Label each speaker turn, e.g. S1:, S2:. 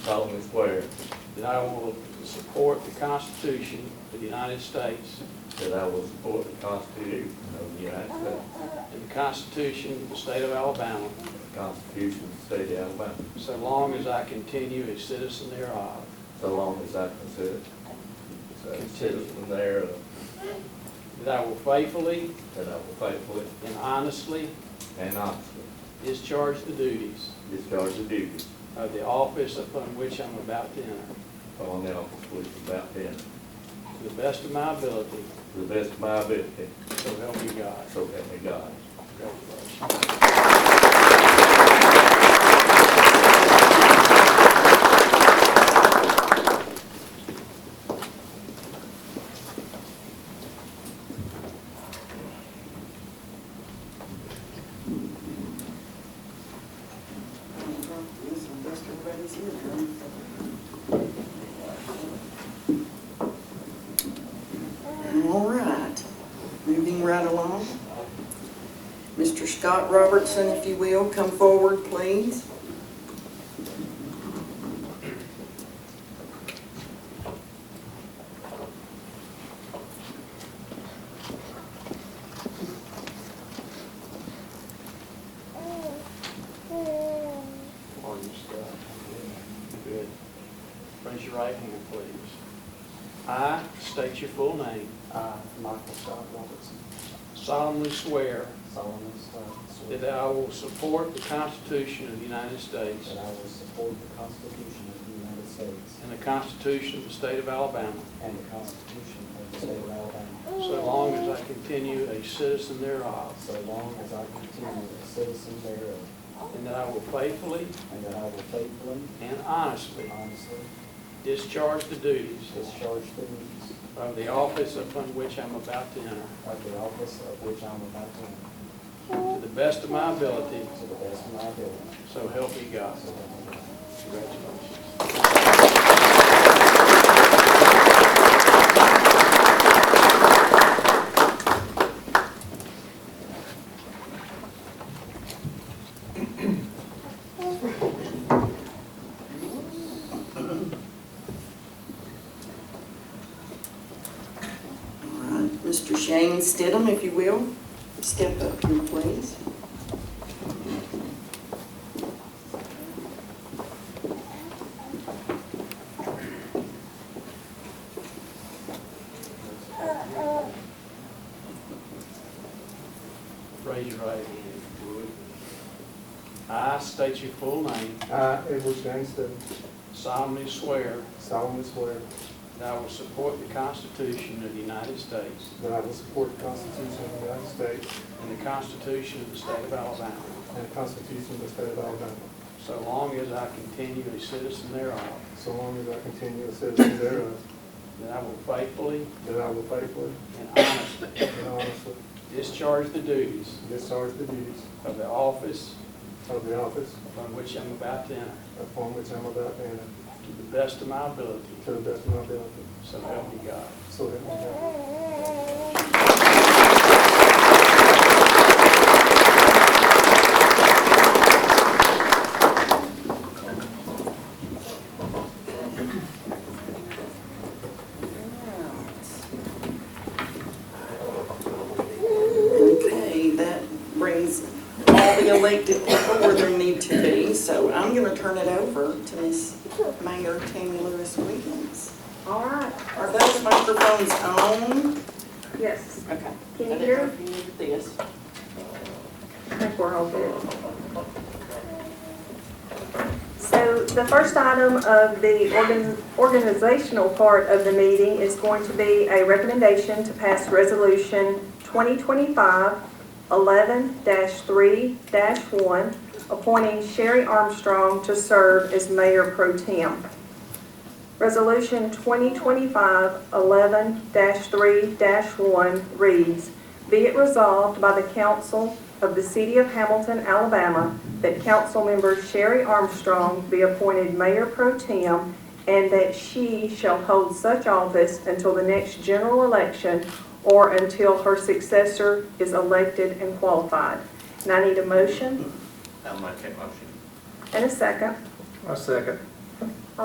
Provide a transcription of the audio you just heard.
S1: solemnly swear
S2: that I will support the Constitution of the United States
S1: that I will support the Constitution of the United States,
S2: and the Constitution of the State of Alabama,
S1: the Constitution of the State of Alabama,
S2: so long as I continue a citizen thereof,
S1: so long as I consider a citizen thereof,
S2: that I will faithfully
S1: that I will faithfully
S2: and honestly
S1: and honestly
S2: discharge the duties
S1: discharge the duties
S2: of the office upon which I'm about to enter,
S1: upon the office which is about to enter,
S2: to the best of my ability,
S1: to the best of my ability,
S2: so help me God.
S1: so help me God.
S2: Congratulations.
S3: All right, moving right along. Mr. Scott Robertson, if you will, come forward, please.
S2: Or you stop. Good. Raise your right hand, please. I state your full name,
S4: I, Uh, Michael Scott Robertson,
S2: solemnly swear
S4: solemnly swear
S2: that I will support the Constitution of the United States
S4: that I will support the Constitution of the United States
S2: and the Constitution of the State of Alabama,
S4: and the Constitution of the State of Alabama,
S2: so long as I continue a citizen thereof,
S4: so long as I continue a citizen thereof,
S2: and that I will faithfully
S4: and that I will faithfully
S2: and
S4: and
S2: honestly
S4: honestly
S2: discharge the duties
S4: discharge the duties
S2: of the office upon which I'm about to enter,
S4: of the office of which I'm about to enter,
S2: to the best of my ability,
S4: to the best of my ability.
S2: so help me God.
S4: So help me God.
S2: Congratulations.
S3: All right, Mr. Shane Stidham, if you will, step up here, please.
S2: Raise your right hand, if you would. I state your full name,
S5: I, Edward James Stidham,
S2: solemnly swear
S5: solemnly swear
S2: that I will support the Constitution of the United States
S5: that I will support the Constitution of the United States
S2: and the Constitution of the State of Alabama,
S5: and the Constitution of the State of Alabama,
S2: so long as I continue a citizen thereof,
S5: so long as I continue a citizen thereof,
S2: that I will faithfully
S5: uh, that I will faithfully
S2: and honestly
S5: and honestly
S2: discharge the duties
S5: discharge the duties
S2: of the office
S5: of the office
S2: upon which I'm about to enter,
S5: upon which I'm about to enter,
S2: to the best of my ability,
S5: to the best of my ability,
S2: so help me God.
S5: so help me God.
S3: Okay, that brings all the elected people where they need to be, so I'm going to turn it over to Miss Mayor Tammy Lewis Williams.
S6: All right,
S3: Are those microphones on?
S6: yes,
S3: Okay.
S6: Can you hear?
S3: Yes.
S6: I think we're all good. So the first item of the organ- organizational part of the meeting is going to be a recommendation to pass Resolution 2025-11-3-1, appointing Sherry Armstrong to serve as mayor pro tem. Resolution 2025-11-3-1 reads, Be it resolved by the council of the city of Hamilton, Alabama, that council member Sherry Armstrong be appointed mayor pro tem and that she shall hold such office until the next general election or until her successor is elected and qualified. And I need a motion
S7: I'll make that motion.
S6: and a second.
S8: I second.